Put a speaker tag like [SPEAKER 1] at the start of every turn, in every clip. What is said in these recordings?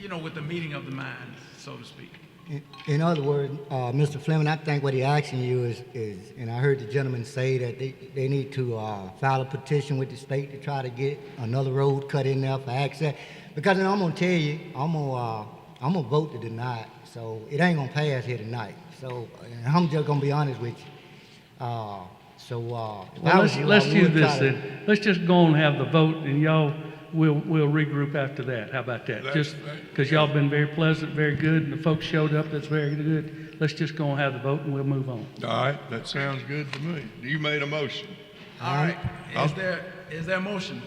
[SPEAKER 1] you know, with the meeting of the mind, so to speak.
[SPEAKER 2] In- In other words, uh, Mr. Fleming, I think what he asking you is, is, and I heard the gentleman say that they, they need to, uh, file a petition with the state to try to get another road cut in there for access. Because then I'm gonna tell you, I'm gonna, uh, I'm gonna vote to deny it, so it ain't gonna pass here tonight. So, and I'm just gonna be honest with you. Uh, so, uh. if I
[SPEAKER 3] Well,
[SPEAKER 2] was
[SPEAKER 3] let's,
[SPEAKER 2] you, I
[SPEAKER 3] let's
[SPEAKER 2] would
[SPEAKER 3] do
[SPEAKER 2] try
[SPEAKER 3] this
[SPEAKER 2] to-
[SPEAKER 3] then. Let's just go and have the vote and y'all, we'll, we'll regroup after that. How about that?
[SPEAKER 4] Let's-
[SPEAKER 3] Just,
[SPEAKER 4] let-
[SPEAKER 3] because y'all been very pleasant, very good, and the folks showed up, that's very good. Let's just go and have the vote and we'll move on.
[SPEAKER 4] All right, that sounds good to me. You made a motion.
[SPEAKER 1] All right, is
[SPEAKER 4] I'll-
[SPEAKER 1] there, is there a motion?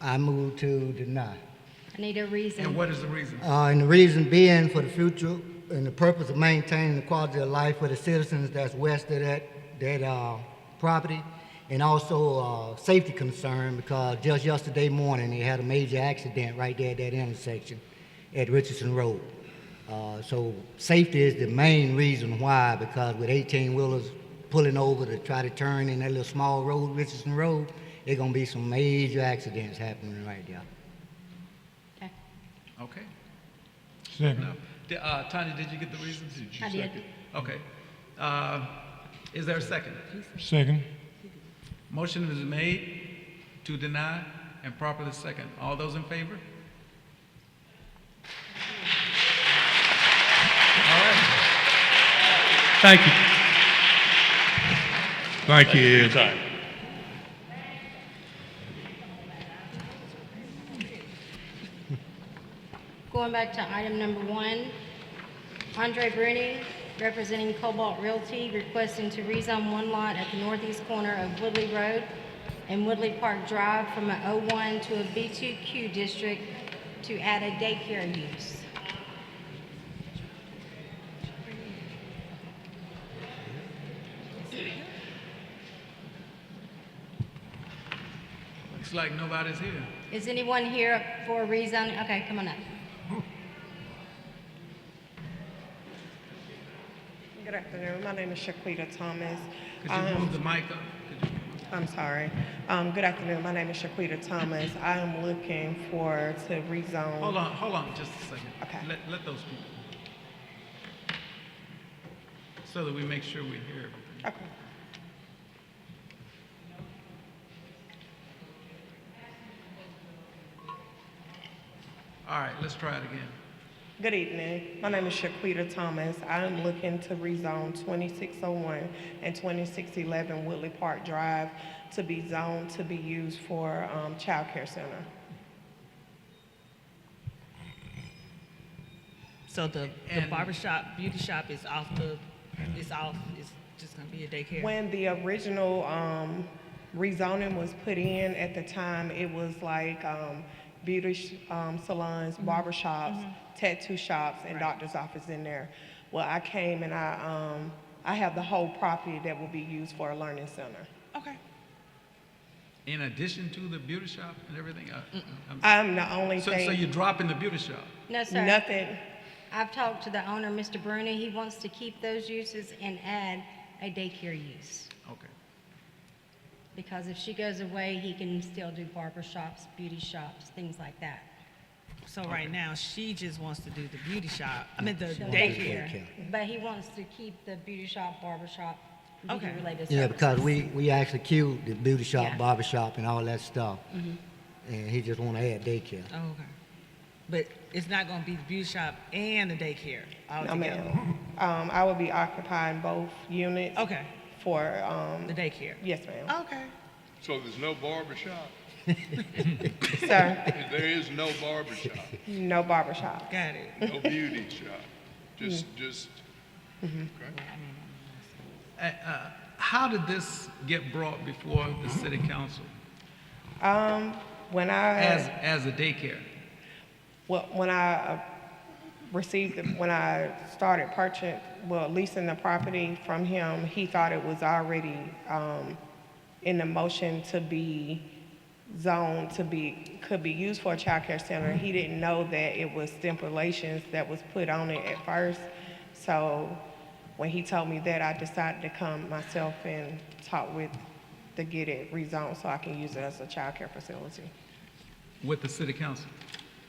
[SPEAKER 2] I move to deny.
[SPEAKER 5] I need a
[SPEAKER 1] And
[SPEAKER 5] reason.
[SPEAKER 1] what is the reason?
[SPEAKER 2] Uh, and the reason being for the future and the purpose of maintaining the quality of life for the citizens that's west of that, that, uh, property. And also, uh, safety concern because just yesterday morning, they had a major accident right there at that intersection at Richardson Road. Uh, so safety is the main reason why because with eighteen wheelers pulling over to try to turn in that little small road, Richardson Road, there gonna be some major accidents happening right there.
[SPEAKER 5] Okay.
[SPEAKER 1] Okay. No. Di- Uh, Tanya, did you get the reason? you
[SPEAKER 5] I did.
[SPEAKER 1] second? Okay. Uh, is there a second?
[SPEAKER 6] Second.
[SPEAKER 1] Motion is made to deny and properly second. All those in favor? All right.
[SPEAKER 3] Thank you.
[SPEAKER 4] Thank you, Ed.
[SPEAKER 5] Going back to item number one, Andre Bruni, representing Cobalt Realty, requesting to rezone one lot at the northeast corner of Woodley Road and Woodley Park Drive from a O1 to a B2Q district to add a daycare use.
[SPEAKER 1] Looks like nobody's here.
[SPEAKER 5] Is anyone here for rezoning? Okay, come on up.
[SPEAKER 7] Good afternoon. My name is Shaquita Thomas.
[SPEAKER 1] Could you move
[SPEAKER 7] Um,
[SPEAKER 1] the mic up? Could you-
[SPEAKER 7] I'm sorry. Um, Good afternoon. My name is Shaquita Thomas. I am looking for to
[SPEAKER 1] Hold
[SPEAKER 7] rezone.
[SPEAKER 1] on, hold on, just a second.
[SPEAKER 7] Okay.
[SPEAKER 1] Let, let those people. So that we make sure we hear everything.
[SPEAKER 7] Okay.
[SPEAKER 1] All right, let's try it again.
[SPEAKER 7] Good evening. My name is Shaquita Thomas. I am looking to rezone 2601 and 2611 Woodley Park Drive to be zoned to be used for um, childcare center.
[SPEAKER 8] So the, the
[SPEAKER 1] And-
[SPEAKER 8] barber shop, beauty shop is off the, it's off, it's just gonna be a daycare.
[SPEAKER 7] When the original um, rezoning was put in, at the time, it was like um, beauty sh- um, salons, barber shops, tattoo shops, and doctor's office in there. Well, I came and I, um, I have the whole property that will be used for a learning center.
[SPEAKER 8] Okay.
[SPEAKER 1] In addition to the beauty shop and everything? uh, um,
[SPEAKER 7] I'm the only
[SPEAKER 1] So, so
[SPEAKER 7] thing,
[SPEAKER 1] you're dropping the beauty shop?
[SPEAKER 5] No, sir.
[SPEAKER 7] nothing,
[SPEAKER 5] I've talked to the owner, Mr. Bruni. He wants to keep those uses and add a daycare use.
[SPEAKER 1] Okay.
[SPEAKER 5] Because if she goes away, he can still do barber shops, beauty shops, things like that.
[SPEAKER 8] So right now, she just wants to do the beauty shop, I mean, the
[SPEAKER 2] Daycare.
[SPEAKER 8] daycare.
[SPEAKER 5] But he wants to keep the beauty shop, barber shop, beauty
[SPEAKER 8] Okay.
[SPEAKER 5] related
[SPEAKER 2] Yeah,
[SPEAKER 5] services.
[SPEAKER 2] because we, we actually queued the beauty shop,
[SPEAKER 5] Yeah.
[SPEAKER 2] barber shop, and all that stuff. And he just wanna add daycare.
[SPEAKER 8] Oh, okay. But it's not gonna be the beauty shop and the daycare
[SPEAKER 7] no
[SPEAKER 8] altogether.
[SPEAKER 7] ma'am. Um, I will be occupying both units.
[SPEAKER 8] Okay,
[SPEAKER 7] For, um,
[SPEAKER 8] the daycare.
[SPEAKER 7] yes, ma'am.
[SPEAKER 8] Okay.
[SPEAKER 4] So there's no barber shop?
[SPEAKER 7] Sir,
[SPEAKER 4] There is no barber shop,
[SPEAKER 7] no barber shop.
[SPEAKER 8] Got it.
[SPEAKER 4] no beauty shop, just, just, okay.
[SPEAKER 1] Uh, uh, How did this get brought before the city council
[SPEAKER 7] Um, when I.
[SPEAKER 1] as, as a daycare?
[SPEAKER 7] Well, when I uh, received, the- when I started purchasing, well, leasing the property from him, he thought it was already um, in the motion to be zoned, to be, could be used for a childcare center. He didn't know that it was stipulations that was put on it at first. So when he told me that, I decided to come myself and talk with, to get it rezoned so I can use it as a childcare facility.
[SPEAKER 1] With the city council?